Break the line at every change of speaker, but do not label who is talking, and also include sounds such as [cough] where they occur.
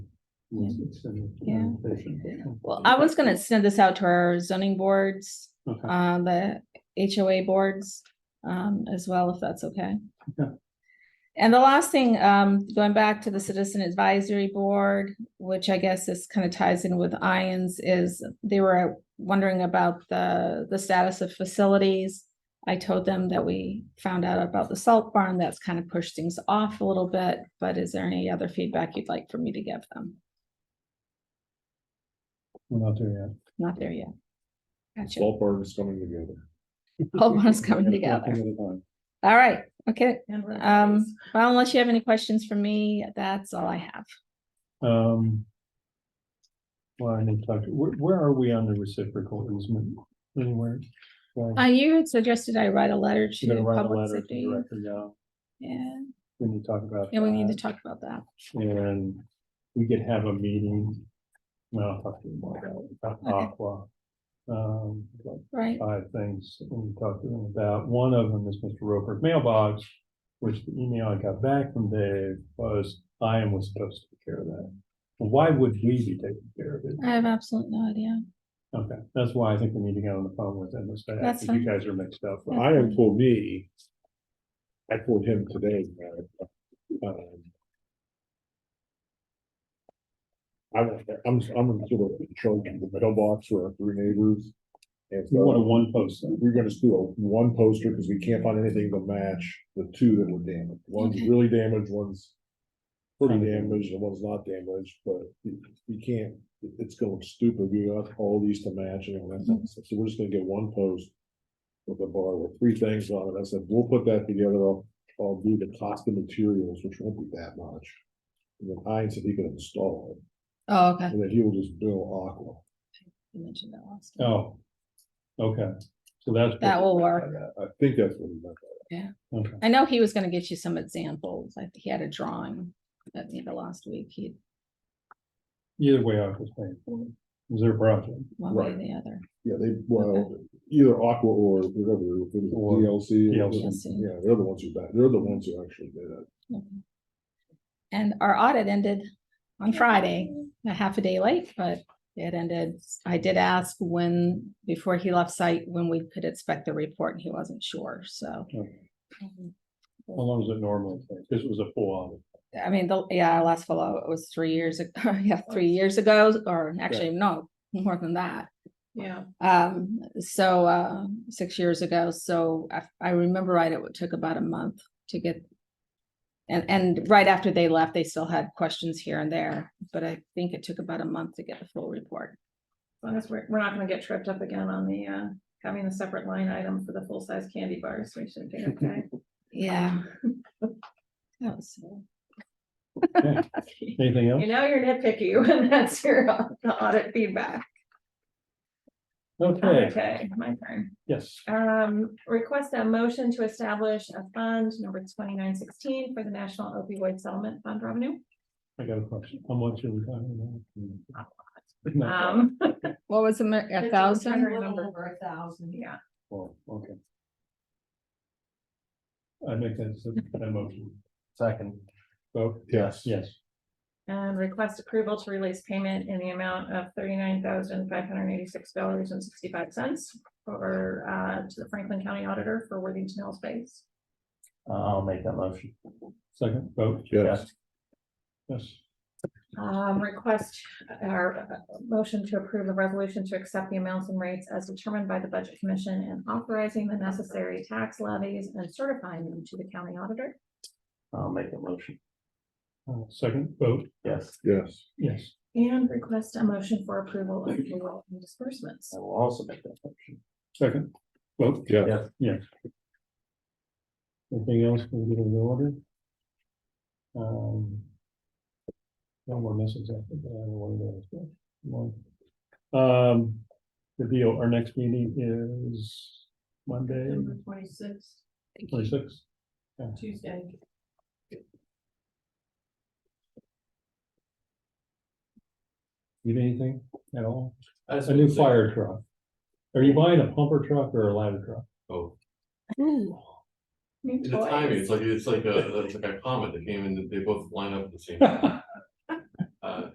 Yeah.
It's been
Yeah.
an invitation.
Well, I was gonna send this out to our zoning boards,
Okay.
uh, the HOA boards, um, as well, if that's okay.
Okay.
And the last thing, um, going back to the Citizen Advisory Board, which I guess this kind of ties in with Ions, is they were wondering about the, the status of facilities. I told them that we found out about the salt barn, that's kind of pushed things off a little bit, but is there any other feedback you'd like for me to give them?
We're not there yet.
Not there yet. Gotcha.
Salt barn is
[laughs]
coming together.
Whole one's coming
One thing at
together.
a time.
All right, okay.
And we're
Um,
always-
well, unless you have any questions for me, that's all I have.
Um. Well, I need to talk, to- where, where are we on the reciprocal easement anywhere? Well,
Uh, you had suggested I write a letter
We're gonna
to
write a
public
letter to the
safety.
director now,
Yeah,
we need to talk about.
yeah, we need to
that.
talk about that.
And we could have a meeting. No, I'll talk to you more about, it, about
Okay.
Aqua. Um, like
Right,
five things that we talked to them about. One of them is Mr. Roper's mailbox, which the email I got back from Dave was, I am was supposed to take care of that. Why would we be taking care of it?
I have absolutely no idea.
Okay, that's why I think we need to get on the phone with them, is that,
That's
because you guys are mixed up.
Yeah.
I am told me. I told him today. uh, um, I don't, I'm, I'm sort of in charge of the mailbox for our three neighbors. And
You want a
so
one post,
we're gonna just do a one poster because we can't find anything to match the two that were damaged. One's
Okay.
really damaged, one's pretty
Kinda
damaged, and one's not damaged, but you, you can't, it- it's going stupid. We got all these to match and all that kind of stuff. So we're just gonna get one post with a bar with three things on it. I said, we'll put that together. I'll, I'll do the cost of materials, which won't be that much. And then I said he could install
Oh,
it,
okay.
and then he will just bill Aqua.
You mentioned that last. time.
oh. Okay, so that's. what-
That will work.
I I think that's what he meant.
Okay,
I know he was gonna get you some examples. I think he had a drawing at the end of last week. He,
either way, I was paying for it, it was their project.
one way or
Right.
the other.
Yeah, they, well, either Aqua or whatever, if it
Or
was DLC. or-
DLC.
DLC.
Yeah, they're the ones who, back- they're the ones who actually did it.
Okay. And our audit ended on Friday, a half a day late, but it ended. I did ask when, before he left site, when we could expect the report and he wasn't sure, so.
Okay.
um,
How long does it normally take? This was a full audit.
I mean, the, yeah, our last follow, it was three years ago, [laughs] yeah, three years ago, or actually, no, more than that.
Yeah,
Um, so, uh, six years ago, so I, I remember right, it took about a month to get. And, and right after they left, they still had questions here and there, but I think it took about a month to get the full report.
as long as we're, we're not gonna get tripped up again on the, uh, having a separate line item for the full-size candy bars, we should be okay.
Yeah. [laughs] That was, uh,
You
Anything else?
know, you're nitpicky [laughs] when that's your au- the audit feedback.
Okay,
Okay, my turn.
yes.
Um, request a motion to establish a fund number twenty-nine sixteen for the National Opioid Settlement Fund Revenue.
I got a question. How much are we talking about? No.
Um,
what was it, a thousand?
over a thousand. Yeah,
Oh, okay. I make that, s- that motion. Second. Vote,
Yes.
yes.
and request approval to release payment in the amount of thirty-nine thousand five hundred eighty-six dollars and sixty-five cents for, uh, to the Franklin County Auditor for Worthington Hills Base.
I'll make that motion. Second, vote.
Yes.
Yes,
Um, request or uh, motion to approve the resolution to accept the amounts and rates as determined by the Budget Commission and authorizing the necessary tax levies and certifying them to the county auditor.
I'll make a motion,
Uh, second, vote,
yes.
Yes.
yes.
And request a motion for approval of payroll and disbursements.
I will also make that motion.
Second, vote,
Yeah.
Yes.
yes. Anything else we get in the order? Um. No more messages. I think, I don't know what it is. Um, the deal, our next meeting is Monday,
twenty-sixth,
twenty-six.
Tuesday.
Need anything at all?
I
A new fire truck. Are you buying a pumper truck or a ladder truck?
Oh, the timing, it's like, it's like a, it's like a comet that came in, they both line up at the same
[laughs]
time. Uh,